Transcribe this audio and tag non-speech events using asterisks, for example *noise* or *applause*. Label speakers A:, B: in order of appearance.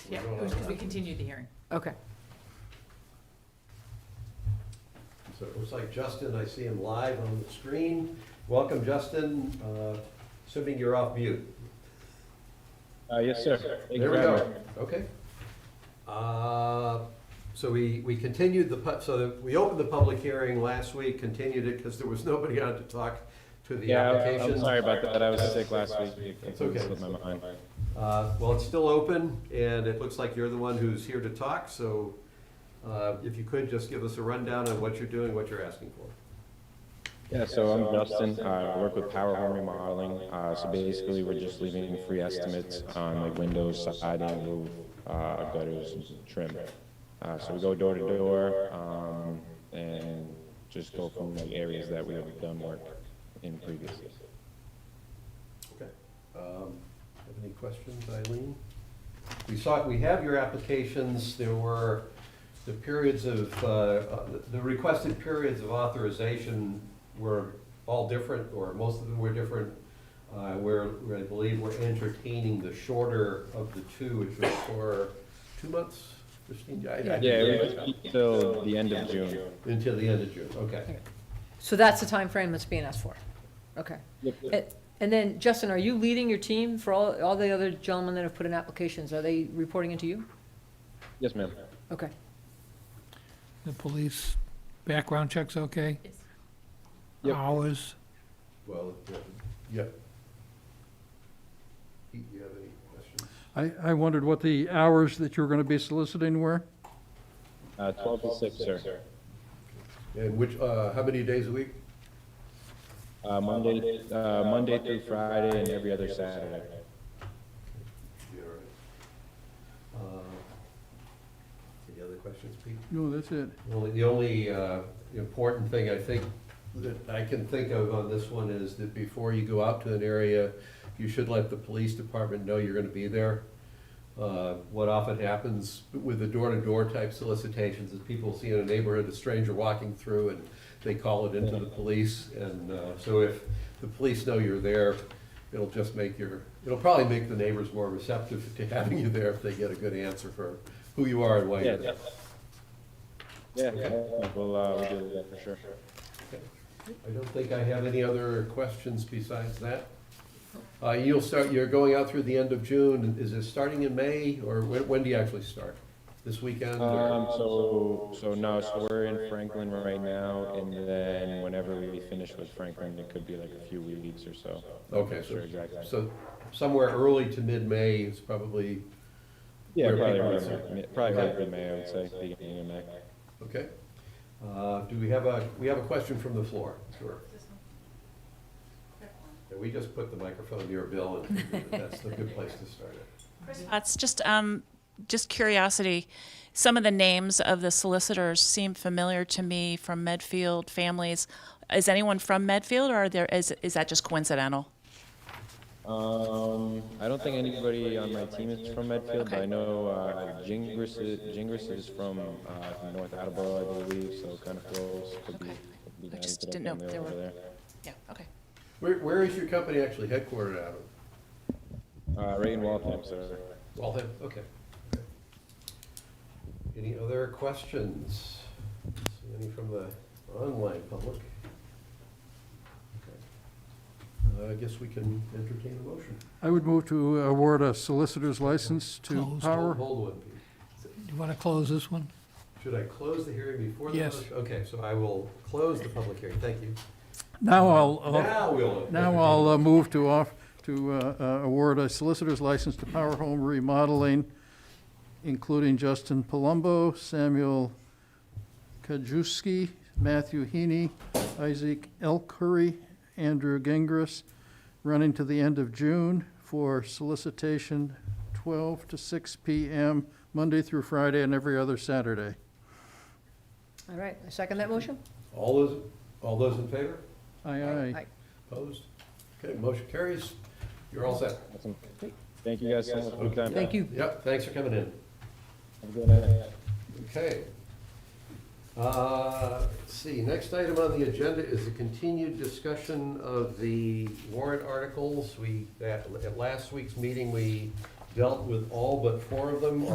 A: Yeah, it was because we continued the hearing.
B: Okay.
C: So it looks like Justin, I see him live on the screen. Welcome, Justin, Uh, assuming you're off mute.
D: Uh, yes, sir. Thank you
C: There we
D: very
C: go,
D: much.
C: okay. Uh, So we, we continued the, pub- so that, we opened the public hearing last week, continued it because there was *laughs* nobody on to talk to the
D: Yeah, I-
C: application.
D: I'm sorry about that. I was sick last week. It
C: It's
D: completely
C: okay.
D: slipped my mind.
C: Uh, Well, it's still open, and it looks like you're the one who's here to talk, so uh, if you could, just give us a rundown on what you're doing, what you're asking for.
D: Yeah, so I'm Justin. I work with Power Home Remodeling. Uh, so basically, we're just leaving free estimates on like windows, siding, roof, uh, gutters, and trim. Uh, so we go door to door, um, and just go from like areas that we have done work in previously.
C: Okay. Um, Have any questions, Eileen? We saw, we have your applications, there were the periods of, uh, uh, the requested periods of authorization were all different, or most of them were different. Uh, Where, where I believe we're entertaining the shorter of the two, which was for two months, Christine? I- I-
D: Yeah, we just keep till the end of June.
C: Until the end of June, okay.
B: So that's the time frame that's being asked for. Okay. And- And then, Justin, are you leading your team for all, all the other gentlemen that have put in applications? Are they reporting into you?
D: Yes, ma'am.
B: Okay.
E: The police background check's okay?
A: Yes.
D: Yep.
E: Hours,
C: Well, yeah. Pete, do you have any questions?
F: I, I wondered what the hours that you were going to be soliciting were?
D: Uh, twelve to six, sir.
C: And which, uh, how many days a week?
D: Uh, Monday, uh, Monday through Friday and every other Saturday.
C: Yeah, all right. Uh, Any other questions, Pete?
F: No, that's it.
C: Well, the only uh, important thing I think that I can think of on this one is that before you go out to an area, you should let the police department know you're gonna be there. Uh, What often happens with the door-to-door type solicitations is people see in a neighborhood a stranger walking through and they call it into the police. And uh, so if the police know you're there, it'll just make your, it'll probably make the neighbors more receptive to having you there if they get a good answer for who you are and why you're there.
D: Yeah, yeah, we'll, uh, we'll do that for sure.
C: I don't think I have any other questions besides that. Uh, You'll start, you're going out through the end of June, is it starting in May, or when, when do you actually start? This weekend? or-
D: Um, so, so no, so we're in Franklin right now, and then whenever we finish with Franklin, it could be like a few weeks or so.
C: Okay,
D: Sure,
C: so,
D: exactly.
C: so somewhere early to mid-May is probably,
D: Yeah,
C: Where
D: probably,
C: people
D: around
C: are-
D: May- probably
C: Okay.
D: around May, I would say, beginning of May.
C: okay. Uh, Do we have a, we have a question from the floor? Sure. Yeah, We just put the microphone near Bill, and that's the good place to start it.
G: That's just, um, just curiosity. Some of the names of the solicitors seem familiar to me from Medfield families. Is anyone from Medfield or are there, is, is that just coincidental?
D: Um, I don't think anybody on my team is from Medfield, but I
G: Okay.
D: know, uh, Jingris is, Jingris is from, uh, from North Attleboro, I believe, so kind of close, could be.
G: Okay.
D: could be
G: I just
D: down to the
G: didn't know
D: family
G: if there
D: over
G: were-
D: there.
G: Yeah, okay.
C: Where, where is your company actually headquartered out of?
D: Uh, Ray and Waltham, sir.
C: Waltham, okay. Any other questions? See Any from the online public? Okay. Uh, I guess we can entertain a motion.
F: I would move to award a solicitor's license to
E: Closed.
F: Power.
C: Hold one, Pete.
E: do you want to close this one?
C: Should I close the hearing before the?
E: Yes.
C: motion? Okay, so I will close the public hearing, thank you.
F: Now I'll, I'll-
C: Now we'll.
F: now
C: entertain-
F: I'll uh, move to off, to uh, uh, award a solicitor's license to Power Home Remodeling, including Justin Palumbo, Samuel Kajewski, Matthew Heaney, Isaac Elkhury, Andrew Gingras, running to the end of June for solicitation 12 to 6 PM, Monday through Friday and every other Saturday.
B: All right. I second that motion?
C: All those, all those in favor?
F: Aye, aye.
C: Opposed? Okay, motion carries. You're all set.
D: Awesome. Thank you guys so much for your time.
B: Thank you.
C: Yep, thanks for coming in.
D: Have a good night.
C: Okay. Uh, Let's see, next item on the agenda is the continued discussion of the warrant articles. We, at at last week's meeting, we dealt with all but four of them.